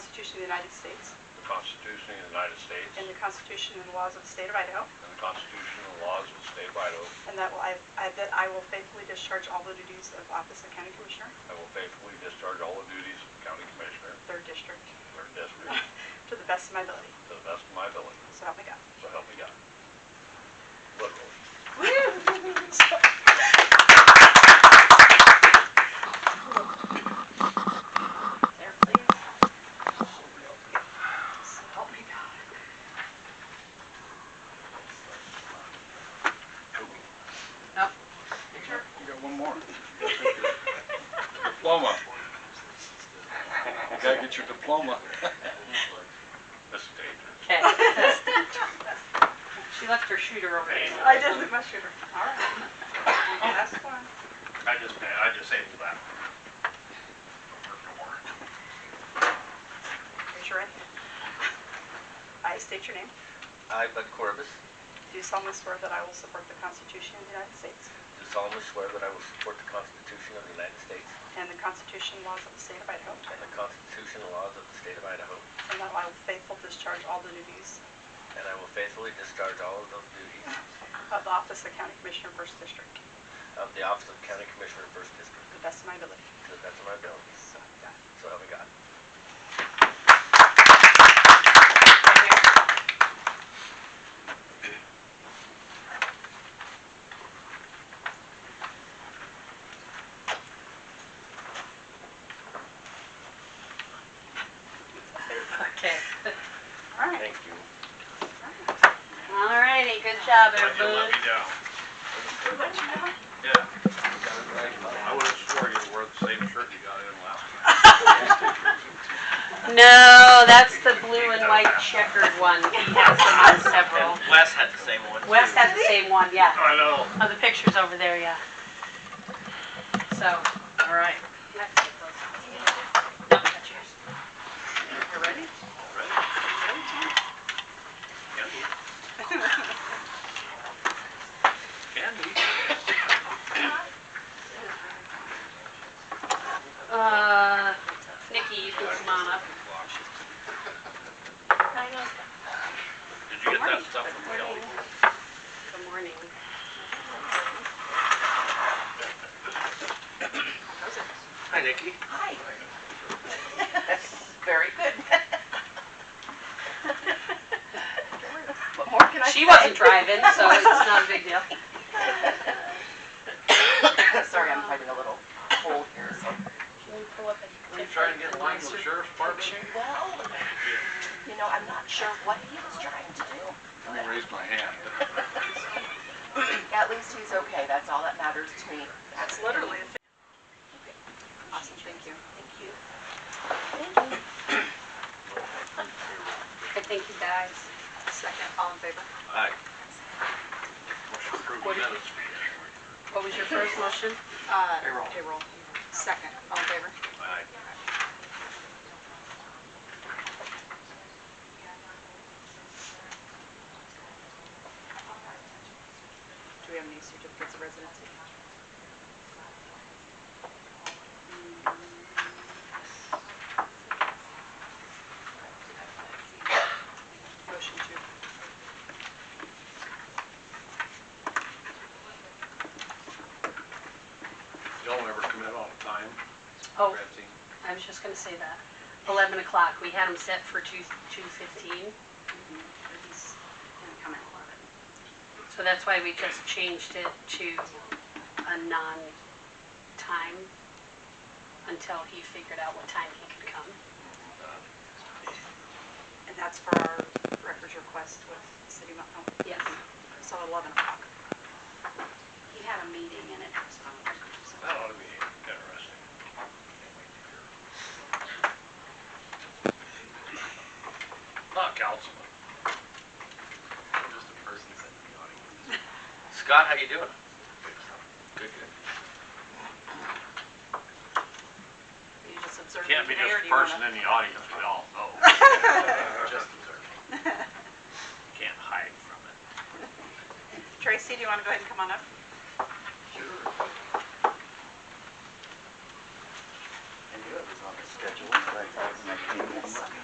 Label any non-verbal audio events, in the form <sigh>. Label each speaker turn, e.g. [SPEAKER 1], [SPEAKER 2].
[SPEAKER 1] Constitution of the United States
[SPEAKER 2] the Constitution of the United States
[SPEAKER 1] and the Constitution and laws of the State of Idaho,
[SPEAKER 2] and the Constitution and laws of the state of Idaho.
[SPEAKER 1] and that will I I- that I will faithfully discharge all the duties of Office of County Commissioner,
[SPEAKER 2] I will faithfully discharge all the duties of County Commissioner,
[SPEAKER 1] Third District, <laughs>
[SPEAKER 2] Third District,
[SPEAKER 1] to the best of my ability.
[SPEAKER 2] to the best of my ability.
[SPEAKER 1] So help me God.
[SPEAKER 2] So help me God. Literally.
[SPEAKER 1] There, please. So help me <laughs> God.
[SPEAKER 2] You got one more. Diploma. You gotta get your diploma. This is dangerous.
[SPEAKER 3] Okay. She left her shooter over there.
[SPEAKER 1] I did leave my shooter. All right. Oh, that's fun.
[SPEAKER 2] I just, I disabled that.
[SPEAKER 1] Raise your right hand. I state your name.
[SPEAKER 4] I, Bud Corbus,
[SPEAKER 1] Do solemnly swear that I will support the Constitution of the United States
[SPEAKER 4] do solemnly swear that I will support the Constitution of the United States
[SPEAKER 1] and the Constitution and laws of the State of Idaho,
[SPEAKER 4] and the Constitution and laws of the state of Idaho,
[SPEAKER 1] and that I will faithfully discharge all the duties
[SPEAKER 4] and I will faithfully discharge all of those duties
[SPEAKER 1] of the Office of County Commissioner, First District, to
[SPEAKER 4] of the Office of County Commissioner, First District,
[SPEAKER 1] the best of my ability.
[SPEAKER 4] to the best of my ability.
[SPEAKER 1] So, yeah.
[SPEAKER 4] So help me God.
[SPEAKER 3] Okay.
[SPEAKER 1] All right.
[SPEAKER 4] Thank you.
[SPEAKER 3] All righty, good job, everybody.
[SPEAKER 2] down. Yeah, I would've swore you wore the same shirt you got in last time.
[SPEAKER 3] No, that's the blue and white checkered one. He has them on several.
[SPEAKER 5] Wes had the same one.
[SPEAKER 3] Wes had the same one, yeah.
[SPEAKER 2] I know.
[SPEAKER 3] Oh, the picture's over there, yeah. So, all right. No, that's yours.
[SPEAKER 1] You ready?
[SPEAKER 3] Uh, Nikki, you can come on up.
[SPEAKER 2] Did you get that stuff from Kelly?
[SPEAKER 3] Good morning.
[SPEAKER 5] Hi, Nikki.
[SPEAKER 1] What more can I say?
[SPEAKER 3] She wasn't driving, so it's not a big <laughs> deal.
[SPEAKER 6] Sorry, I'm having a little cold here. so-
[SPEAKER 2] Were you trying to get in line with the sheriff's department?
[SPEAKER 6] Well, you know, I'm not sure what he was trying to do.
[SPEAKER 2] I'm gonna raise my hand.
[SPEAKER 6] At least he's okay, that's all that matters to me.
[SPEAKER 1] That's literally a thing.
[SPEAKER 6] Awesome, thank you. Thank you.
[SPEAKER 3] <coughs> I think he dies.
[SPEAKER 1] Second, all in favor?
[SPEAKER 2] Aye. Motion approved
[SPEAKER 3] What did you-
[SPEAKER 2] minutes.
[SPEAKER 3] What was your first motion?
[SPEAKER 1] Uh,
[SPEAKER 5] Payroll.
[SPEAKER 1] Payroll. Second, all in favor?
[SPEAKER 2] Aye.
[SPEAKER 1] Do we have any certificates of residency? Motion to.
[SPEAKER 2] Y'all never commit on time,
[SPEAKER 3] Oh,
[SPEAKER 2] Betsy.
[SPEAKER 3] I was just gonna say that. Eleven o'clock, we had him set for two, two fifteen.
[SPEAKER 1] He's gonna come at eleven.
[SPEAKER 3] So that's why we just changed it to a non-time until he figured out what time he could come.
[SPEAKER 1] And that's for our records request with City of Mount Hope.
[SPEAKER 3] Yes.
[SPEAKER 1] So eleven o'clock. He had a meeting and it was on record.
[SPEAKER 2] That ought to be interesting. Not councilman.
[SPEAKER 5] Just a person sitting in the audience. Scott, how you doing? Good, good.
[SPEAKER 1] You just observe.
[SPEAKER 2] Can't be
[SPEAKER 1] the mayor, do you
[SPEAKER 2] just a
[SPEAKER 1] wanna-
[SPEAKER 2] person in the audience, we all know.
[SPEAKER 5] Just observing. Can't hide from it.
[SPEAKER 1] Tracy, do you want to go ahead and come on up?
[SPEAKER 4] I knew it was on the schedule, but I thought when I came in,